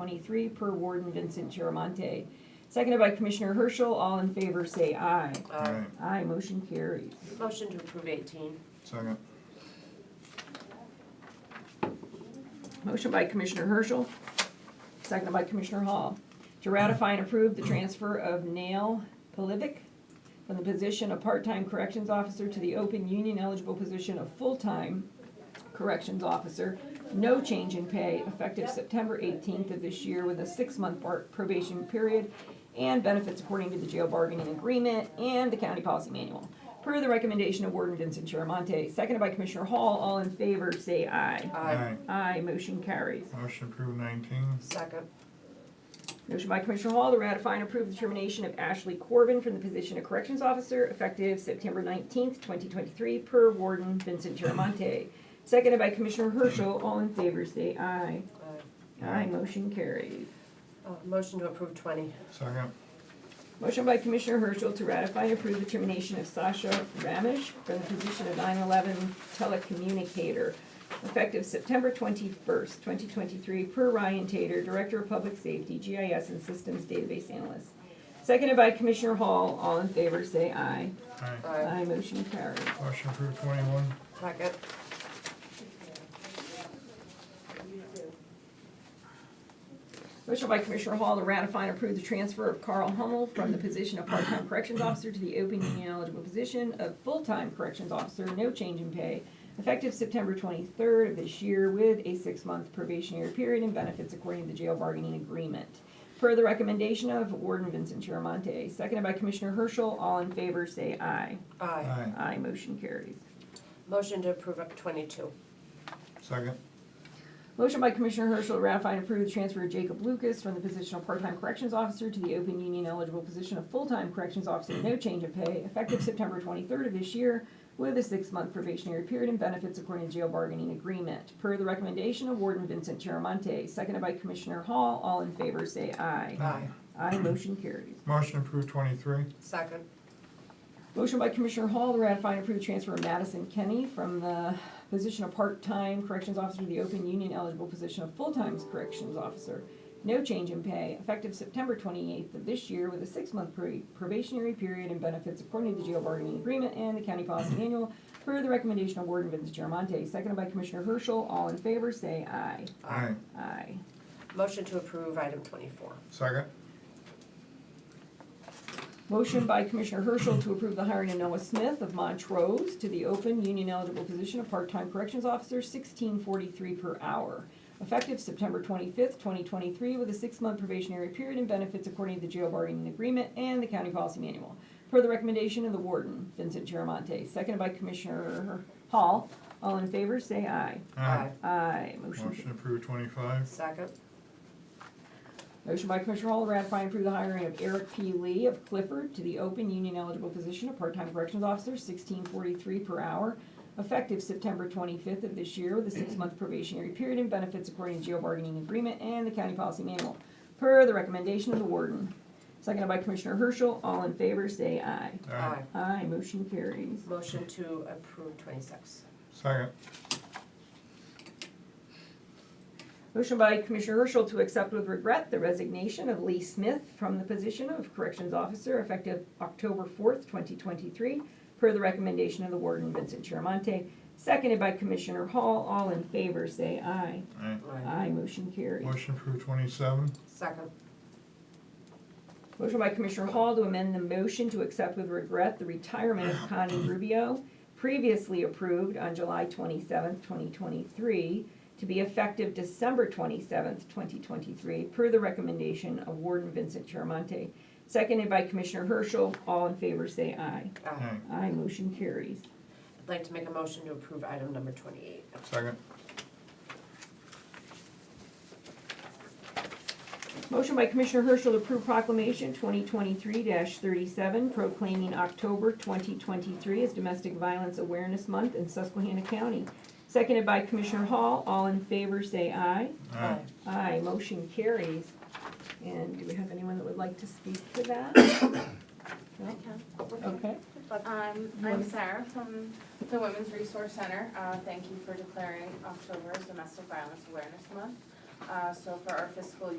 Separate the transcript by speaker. Speaker 1: 23 per Warden Vincent Chiramonte. Seconded by Commissioner Herschel. All in favor, say aye.
Speaker 2: Aye.
Speaker 1: Aye, motion carries.
Speaker 2: Motion to approve eighteen.
Speaker 3: Second.
Speaker 1: Motion by Commissioner Herschel, seconded by Commissioner Hall, to ratify and approve the transfer of Nail Polivic from the position of part-time corrections officer to the open union eligible position of full-time corrections officer. No change in pay effective September eighteenth of this year with a six-month bar- probation period and benefits according to the jail bargaining agreement and the county policy manual. Per the recommendation of Warden Vincent Chiramonte, seconded by Commissioner Hall, all in favor, say aye. Aye, motion carries.
Speaker 3: Motion approved nineteen.
Speaker 2: Second.
Speaker 1: Motion by Commissioner Hall to ratify and approve the termination of Ashley Corbin from the position of Corrections Officer effective September nineteenth, twenty twenty-three, per Warden Vincent Chiramonte. Seconded by Commissioner Herschel, all in favor, say aye.
Speaker 2: Aye.
Speaker 1: Aye, motion carries.
Speaker 2: Uh, Motion to approve twenty.
Speaker 3: Second.
Speaker 1: Motion by Commissioner Herschel to ratify and approve the termination of Sasha Ramish from the position of 9/11 telecommunicator, effective September 21st, 2023, per Ryan Tater, Director of Public Safety, GIS and Systems Database Analyst. Seconded by Commissioner Hall. All in favor, say aye.
Speaker 3: Aye.
Speaker 2: Aye.
Speaker 1: Aye, motion carries.
Speaker 3: Motion approved twenty-one.
Speaker 2: Second.
Speaker 1: Motion by Commissioner Hall to ratify and approve the transfer of Carl Hummel from the position of part-time corrections officer to the open union eligible position of full-time corrections officer, no change in pay, effective September twenty-third of this year with a six-month probationary period and benefits according to the jail bargaining agreement. Per the recommendation of Warden Vincent Chiramonte, seconded by Commissioner Herschel, all in favor, say aye.
Speaker 2: Aye.
Speaker 3: Aye.
Speaker 1: Aye, motion carries.
Speaker 2: Motion to approve up twenty-two.
Speaker 3: Second.
Speaker 1: Motion by Commissioner Herschel to ratify and approve the transfer of Jacob Lucas from the position of part-time corrections officer to the open union eligible position of full-time corrections officer, no change of pay, effective September twenty-third of this year, with a six-month probationary period and benefits according to jail bargaining agreement, per the recommendation of Warden Vincent Chiramonte, seconded by Commissioner Hall. All in favor, say aye.
Speaker 2: Aye.
Speaker 1: Aye, motion carries.
Speaker 3: Motion approved twenty-three.
Speaker 2: Second.
Speaker 1: Motion by Commissioner Hall to ratify and approve transfer of Madison Kenny from the position of part-time corrections officer to the open union eligible position of full-time corrections officer. No change in pay, effective September twenty-eighth of this year with a six-month pro- probationary period and benefits according to the jail bargaining agreement and the county policy manual per the recommendation of Warden Vince Chiramonte, seconded by Commissioner Herschel. All in favor, say aye.
Speaker 3: Aye.
Speaker 1: Aye.
Speaker 2: Motion to approve item twenty-four.
Speaker 3: Second.
Speaker 1: Motion by Commissioner Herschel to approve the hiring of Noah Smith of Montrose to the open union eligible position of part-time corrections officer, sixteen forty-three per hour, effective September twenty-fifth, twenty twenty-three, with a six-month probationary period and benefits according to the jail bargaining agreement and the county policy manual, per the recommendation of the warden, Vincent Chiramonte, seconded by Commissioner Hall. All in favor, say aye. Aye, motion
Speaker 3: Motion approved twenty-five.
Speaker 2: Second.
Speaker 1: Motion by Commissioner Hall to ratify and approve the hiring of Eric P. Lee of Clifford to the open union eligible position of part-time corrections officer, sixteen forty-three per hour, effective September twenty-fifth of this year with a six-month probationary period and benefits according to jail bargaining agreement and the county policy manual, per the recommendation of the warden. Seconded by Commissioner Herschel, all in favor, say aye.
Speaker 2: Aye.
Speaker 1: Aye, motion carries.
Speaker 2: Motion to approve twenty-six.
Speaker 3: Second.
Speaker 1: Motion by Commissioner Herschel to accept with regret the resignation of Lee Smith from the position of Corrections Officer effective October fourth, twenty twenty-three, per the recommendation of the Warden Vincent Chiramonte, seconded by Commissioner Hall. All in favor, say aye.
Speaker 3: Aye.
Speaker 1: Aye, motion carries.
Speaker 3: Motion approved twenty-seven.
Speaker 2: Second.
Speaker 1: Motion by Commissioner Hall to amend the motion to accept with regret the retirement of Connie Rubio, previously approved on July twenty-seventh, twenty twenty-three, to be effective December twenty-seventh, twenty twenty-three, per the recommendation of Warden Vincent Chiramonte, seconded by Commissioner Herschel. All in favor, say aye.
Speaker 2: Aye.
Speaker 3: Aye.
Speaker 1: Aye, motion carries.
Speaker 2: I'd like to make a motion to approve item number twenty-eight.
Speaker 3: Second.
Speaker 1: Motion by Commissioner Herschel to approve proclamation twenty twenty-three thirty-seven proclaiming October twenty twenty-three as Domestic Violence Awareness Month in Susquehanna County. Seconded by Commissioner Hall. All in favor, say aye.
Speaker 3: Aye.
Speaker 1: Aye, motion carries. And do we have anyone that would like to speak to that?
Speaker 4: I
Speaker 1: No?
Speaker 4: can.
Speaker 1: Okay.
Speaker 4: Um, I'm Sarah from the Women's Resource Center. Uh, thank you for declaring October as Domestic Violence Awareness Month. Uh, so for our fiscal